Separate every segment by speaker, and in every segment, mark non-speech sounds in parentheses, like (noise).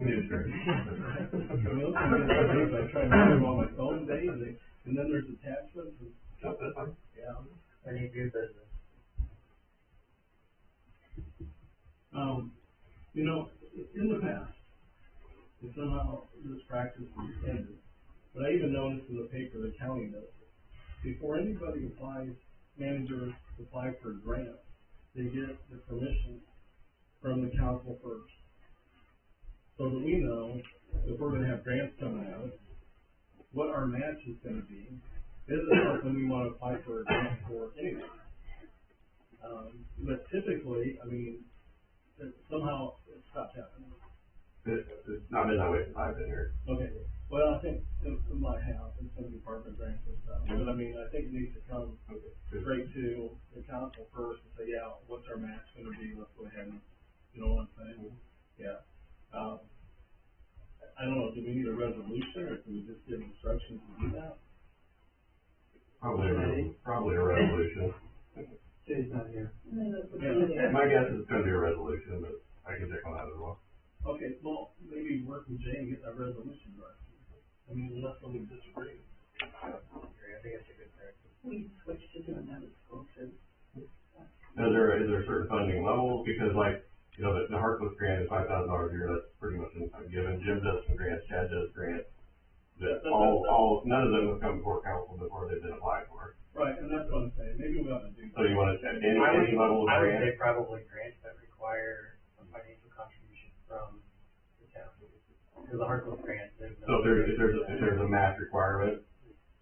Speaker 1: Need a drink.
Speaker 2: (laughs) For those of you that leave, I try to remember all my phone days, and- and then there's attachments, and,
Speaker 1: Nope, that's fine.
Speaker 2: yeah.
Speaker 3: I need new business.
Speaker 2: Um, you know, in the past, and somehow this practice has ended, but I even noticed in the paper, the county does it. Before anybody applies, managers apply for grants, they get the permission from the council first. So that we know if we're gonna have grants coming out, what our match is gonna be, is it something we wanna apply for a grant for anyway? Um, but typically, I mean, that somehow it stopped happening.
Speaker 1: It, it's not been that way since I've been here.
Speaker 2: Okay, well, I think it it might have in some department grants and stuff, but I mean, I think it needs to come straight to the council first and say, yeah, what's our match gonna be, let's go ahead and, you know what I'm saying? Yeah, um, I- I don't know, do we need a resolution, or can we just give instructions to do that?
Speaker 1: Probably, a re- probably a (laughs) resolution.
Speaker 3: Jay's not here.
Speaker 2: Yeah.
Speaker 1: My guess is it's gonna be a resolution, but I can check on that as well.
Speaker 2: Okay, well, maybe work with Jay and get that resolution right. I mean, unless somebody disagrees.
Speaker 3: I think it's a good practice.
Speaker 4: We switched to doing that at school too.
Speaker 1: Is there, is there certain funding levels? Because like, you know, the, the Harkless grant is five thousand dollars a year, that's pretty much anything given. Jim does some grants, Chad does grants. That all, all, none of them have come before council before they've been applied for.
Speaker 2: Right, and that's what I'm saying, maybe we ought to do that.
Speaker 1: So you wanna check any,
Speaker 3: I would-
Speaker 1: any level of
Speaker 3: I would
Speaker 1: grant?
Speaker 3: say probably grants that require some financial contribution from the town. Because the Harkless grant, there's no.
Speaker 1: So if there's, if there's, if there's a match requirement,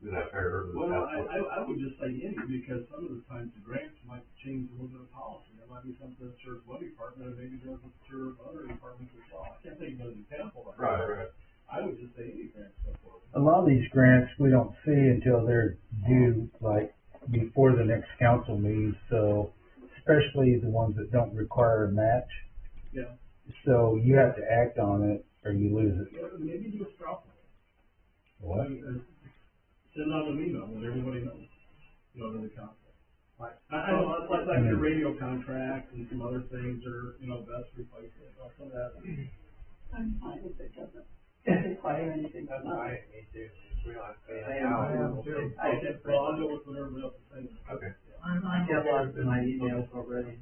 Speaker 1: is that fair? Is
Speaker 2: Well,
Speaker 1: that-
Speaker 2: I, I, I would just say any, because some of the times the grants might change a little bit of policy, there might be something that serves one department, and maybe doesn't serve other departments as well, I can't think of an example like
Speaker 1: Right,
Speaker 2: that.
Speaker 1: right.
Speaker 2: I would just say any grant so forth.
Speaker 5: a lot of these grants, we don't see until they're due, like, before the next council meeting, so, especially the ones that don't require a match.
Speaker 2: Yeah.
Speaker 5: So you have to act on it, or you lose it.
Speaker 2: Yeah, Maybe do a straw poll. I mean, uh, Send out an email, and everybody knows, you know, to the council.
Speaker 3: Right.
Speaker 2: I, I know, it's like, like the radio contract and some other things are, you know, best replacement, some of that.
Speaker 4: I'm fine if it doesn't require anything
Speaker 3: That's
Speaker 4: from us.
Speaker 3: fine, me too. We don't have to pay
Speaker 2: I
Speaker 3: an hour.
Speaker 2: am
Speaker 3: too.
Speaker 4: I
Speaker 2: Okay,
Speaker 4: just-
Speaker 2: well, I'll go with whatever else is saying.
Speaker 1: Okay,
Speaker 3: I get lost in my emails already.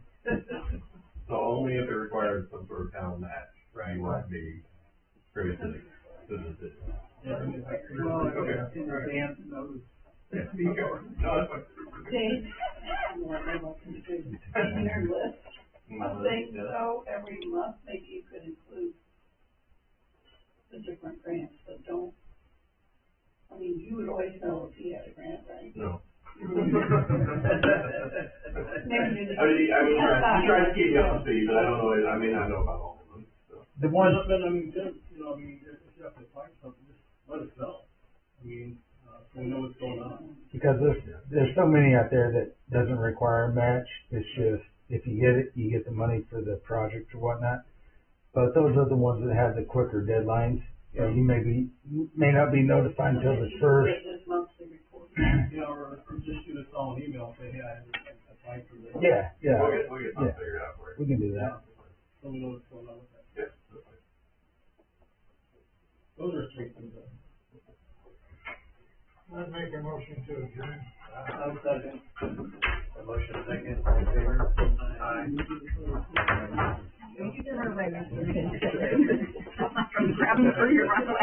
Speaker 1: so only if it requires some sort of town match,
Speaker 3: Right.
Speaker 1: you want to be privy to the, to the decision.
Speaker 2: Yeah, I mean, I-
Speaker 1: Well, it's
Speaker 3: in advance notice.
Speaker 1: Okay, no, that's fine.
Speaker 4: Jay, more memo can do, in your list of things, so every month, maybe you could include the different grants, but don't, I mean, you would always know if you had a grant, right?
Speaker 1: No.
Speaker 4: Maybe you just.
Speaker 1: I mean, I mean, I'm trying to keep you up to speed, but I don't know, I may not know about all of them, so.
Speaker 5: The
Speaker 2: Well,
Speaker 5: ones,
Speaker 2: but I mean, Jim, you know, I mean, if if you have to find something, just let us know. I mean, uh, so we know what's going on.
Speaker 5: because there's, there's so many out there that doesn't require a match, it's just, if you get it, you get the money for the project or whatnot. But those are the ones that have the quicker deadlines, you know, you may be, may not be notified until the first,
Speaker 4: This monthly report.
Speaker 2: You know, or, or just shoot us all an email, say, hey, I had to apply for this.
Speaker 5: yeah, yeah,
Speaker 1: We'll get, we'll get something figured out for you.
Speaker 5: we can do that.
Speaker 2: So we know what's going on with that.
Speaker 1: Yeah, that's fine.
Speaker 2: Those are three things. that-
Speaker 6: I'd make a motion to adjourn.
Speaker 3: i second. A motion second, all in favor? Aye.
Speaker 7: Thank you for waiting. Grab them for your.